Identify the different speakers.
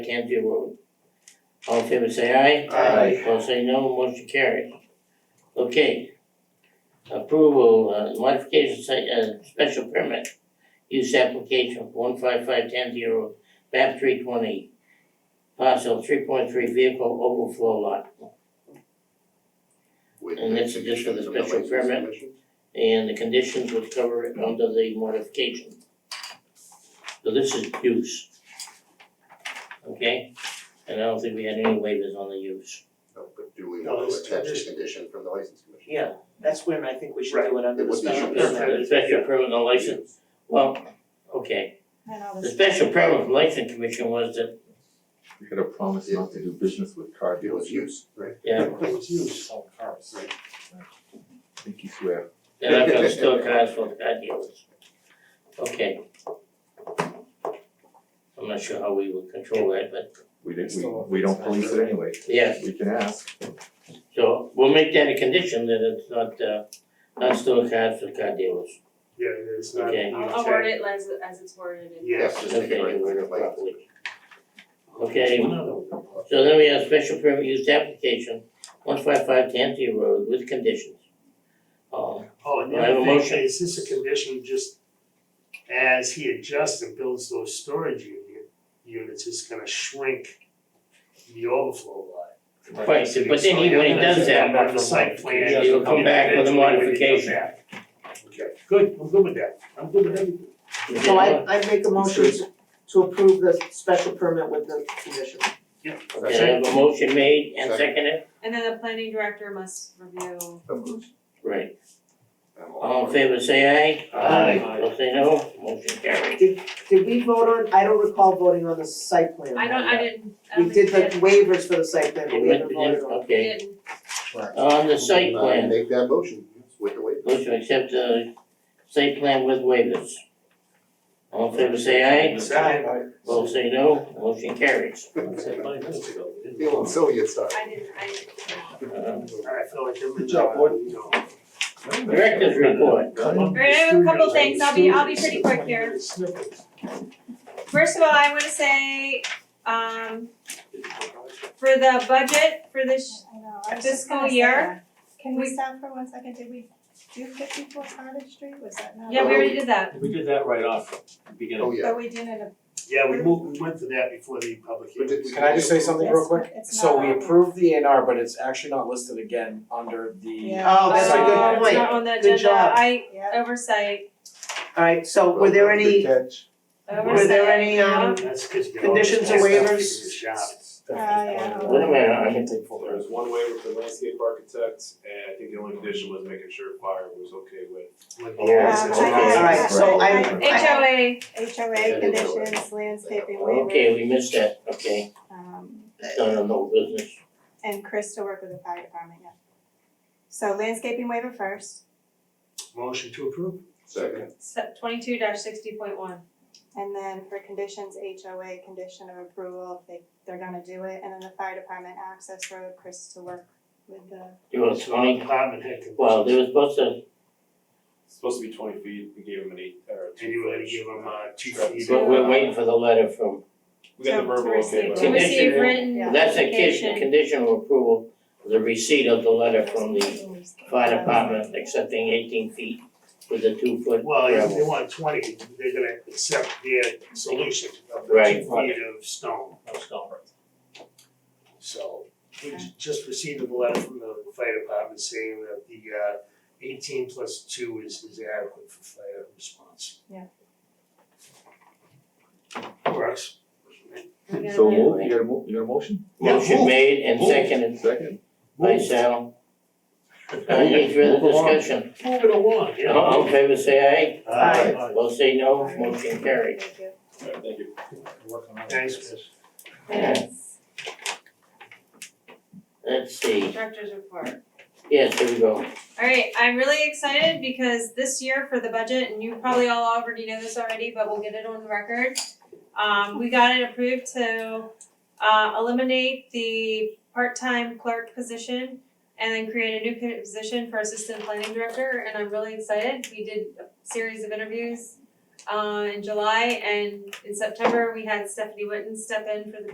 Speaker 1: Canfield Road. All in favor say aye.
Speaker 2: Aye.
Speaker 1: Opposed say no, motion carries. Okay. Approval, uh, modification site, uh, special permit, use application one five five ten zero, map three twenty. Parcel three point three vehicle overflow lot,
Speaker 2: with
Speaker 1: And that's
Speaker 2: the
Speaker 1: just for the
Speaker 2: conditions of the
Speaker 1: special
Speaker 2: license
Speaker 1: permit.
Speaker 2: commission.
Speaker 1: and the conditions would cover it under the modification. So this is use. Okay, and I don't think we had any waivers on the use.
Speaker 2: No, but do we
Speaker 3: No,
Speaker 2: want to
Speaker 3: it's
Speaker 2: attach the
Speaker 3: condition.
Speaker 2: condition from the license commission?
Speaker 1: Yeah.
Speaker 3: That's when I think we should do it under
Speaker 2: It
Speaker 3: the
Speaker 2: would be
Speaker 3: special
Speaker 2: under
Speaker 3: permit.
Speaker 1: The special permit and license, well, okay,
Speaker 4: And all
Speaker 1: the
Speaker 4: this.
Speaker 1: special permit and license commission was that,
Speaker 5: You had a promise not to do business with car
Speaker 2: It was
Speaker 5: dealers.
Speaker 2: use, right?
Speaker 1: yeah,
Speaker 3: It's used.
Speaker 5: I think you swear.
Speaker 1: they're not gonna store cars for car dealers. Okay. I'm not sure how we would control that, but
Speaker 5: We didn't, we, we don't police it anyway.
Speaker 1: yeah,
Speaker 5: We can ask.
Speaker 1: so we'll make that a condition that it's not uh not store cars for car dealers.
Speaker 6: Yeah, it's not.
Speaker 1: Okay.
Speaker 4: I'll I'll word it as as it's worded in.
Speaker 6: Yes.
Speaker 2: Just
Speaker 1: Okay,
Speaker 2: make it right
Speaker 1: you
Speaker 2: for
Speaker 1: word
Speaker 2: the
Speaker 1: it
Speaker 2: license.
Speaker 1: properly. Okay, So then we have special permit use application, one five five Tanty Road with conditions. Um,
Speaker 6: Oh, and
Speaker 1: Do
Speaker 6: the
Speaker 1: I have a
Speaker 6: other thing,
Speaker 1: motion?
Speaker 6: is this a condition just as he adjusts and builds those storage uni- units, it's gonna shrink the overflow lot.
Speaker 1: Right, but then he, when he does that,
Speaker 6: on the site plan.
Speaker 1: He'll come back with a
Speaker 6: individually when he
Speaker 1: modification.
Speaker 6: comes back. Okay, good, I'm good with that, I'm good with everything.
Speaker 3: So I I make a motion to- to approve the special permit with the condition.
Speaker 1: Okay, I have a motion made and
Speaker 2: Second.
Speaker 1: seconded,
Speaker 4: And then the planning director must review.
Speaker 2: Of course.
Speaker 1: right,
Speaker 2: I'm
Speaker 1: all in favor, say aye.
Speaker 6: Aye.
Speaker 1: All say no, motion carried.
Speaker 3: Did we vote on, I don't recall voting on the site plan.
Speaker 4: I don't, I didn't, um, I
Speaker 3: We
Speaker 4: don't
Speaker 3: did
Speaker 4: think
Speaker 3: the waivers for the site plan, but
Speaker 1: It
Speaker 3: we
Speaker 1: went
Speaker 3: haven't
Speaker 1: to
Speaker 3: voted on.
Speaker 1: them, okay,
Speaker 4: didn't.
Speaker 1: on the site
Speaker 2: Uh,
Speaker 1: plan,
Speaker 2: Make that motion, yes, with the waiver.
Speaker 1: motion to accept the site plan with waivers. All in favor, say aye, all say no, motion carries.
Speaker 2: Feeling silly, it's not.
Speaker 4: I didn't, I didn't.
Speaker 1: Uh,
Speaker 6: Alright, I feel like I'm in.
Speaker 3: Good job, boy.
Speaker 1: Director's report,
Speaker 4: All right, I have a couple things, I'll be, I'll be pretty quick here. First of all, I wanna say, um, for the budget for this,
Speaker 7: I know, I was
Speaker 4: This
Speaker 7: just gonna
Speaker 4: whole
Speaker 7: say
Speaker 4: year,
Speaker 7: that. Can
Speaker 4: we-
Speaker 7: we stop for one second, did we do fifty-four Cottage Street, was that not?
Speaker 4: yeah, we already did that.
Speaker 8: We did that right off the beginning.
Speaker 2: Oh, yeah.
Speaker 7: But we did it a.
Speaker 6: Yeah, we moved, we went to that before the public
Speaker 2: But
Speaker 6: hearing.
Speaker 2: did we-
Speaker 9: Can I just say something real
Speaker 7: it's-
Speaker 9: quick?
Speaker 7: it's
Speaker 9: So
Speaker 7: not
Speaker 9: we
Speaker 7: on the-
Speaker 9: approved the A and R, but it's actually not listed again under the,
Speaker 7: Yeah.
Speaker 3: Oh, that's a
Speaker 9: Site
Speaker 4: Uh,
Speaker 3: good
Speaker 9: plan.
Speaker 4: it's
Speaker 3: point.
Speaker 4: not on the
Speaker 3: Good
Speaker 4: agenda,
Speaker 3: job.
Speaker 4: I
Speaker 7: Yeah.
Speaker 4: oversight,
Speaker 3: Alright, so were there any,
Speaker 9: catch.
Speaker 4: oversight.
Speaker 3: were there any um
Speaker 6: That's 'cause you
Speaker 3: Conditions
Speaker 6: always-
Speaker 3: and waivers?
Speaker 6: it's a shop.
Speaker 7: Oh, yeah.
Speaker 1: Wait a minute, I
Speaker 9: can take full.
Speaker 10: There was one waiver for the landscape architect, and uh, I think the only condition was making sure fire was okay with.
Speaker 6: With the
Speaker 5: Yeah.
Speaker 6: license.
Speaker 7: Um, I-
Speaker 3: Alright, so I-
Speaker 4: HOA,
Speaker 7: HOA conditions, landscaping
Speaker 1: okay,
Speaker 7: waiver,
Speaker 1: we missed that, okay,
Speaker 7: um,
Speaker 1: done on no business,
Speaker 7: and Chris to work with the fire department, yeah. So landscaping waiver first,
Speaker 6: Motion to approve?
Speaker 2: Second.
Speaker 4: se- twenty-two dash sixty point one.
Speaker 7: and then for conditions, HOA condition of approval, if they, they're gonna do it, and then the fire department access road, Chris to work with the
Speaker 1: you want Tony?
Speaker 6: uh, Department head conditions.
Speaker 1: Well, they were supposed to,
Speaker 10: It's supposed to be twenty feet, we gave him an eight, or two.
Speaker 6: And you were gonna
Speaker 10: foot,
Speaker 6: give him, uh, two
Speaker 10: shrub.
Speaker 6: feet.
Speaker 1: but we're waiting for the letter from
Speaker 10: We got the
Speaker 7: To- to
Speaker 10: verbal okay,
Speaker 7: receive-
Speaker 10: but.
Speaker 4: To receive written
Speaker 7: Yeah.
Speaker 1: That's a
Speaker 4: Application.
Speaker 1: condition, condition of approval, the receipt of the letter from the fire department accepting eighteen feet with the two foot
Speaker 6: Well, if they
Speaker 1: gravel.
Speaker 6: want twenty, they're gonna accept their solution of the
Speaker 1: Right.
Speaker 6: two feet of stone,
Speaker 8: No stone.
Speaker 6: so. We ju- just received a letter from the fire department saying that the uh eighteen plus two is is adequate for fire response.
Speaker 7: Yeah.
Speaker 6: Works.
Speaker 5: So move, you got a mo- you got a motion?
Speaker 6: Yeah,
Speaker 1: Motion
Speaker 6: move,
Speaker 1: made and
Speaker 5: move.
Speaker 1: seconded
Speaker 5: Second.
Speaker 1: by
Speaker 6: Move.
Speaker 1: Sal. Any further
Speaker 5: Move along.
Speaker 1: discussion?
Speaker 6: Move it along, you know?
Speaker 1: All in favor say aye.
Speaker 6: Aye.
Speaker 1: Both say no, motion carried.
Speaker 7: Thank you.
Speaker 10: All right, thank you.
Speaker 6: Thanks, Chris.
Speaker 1: Yes. Let's see,
Speaker 4: Director's report.
Speaker 1: yes, here we go.
Speaker 4: Alright, I'm really excited because this year for the budget, and you probably all already know this already, but we'll get it on the record. Um, we got it approved to uh eliminate the part-time clerk position and then create a new position for assistant planning director, and I'm really excited. We did a series of interviews uh in July and in September, we had Stephanie Witten step in for the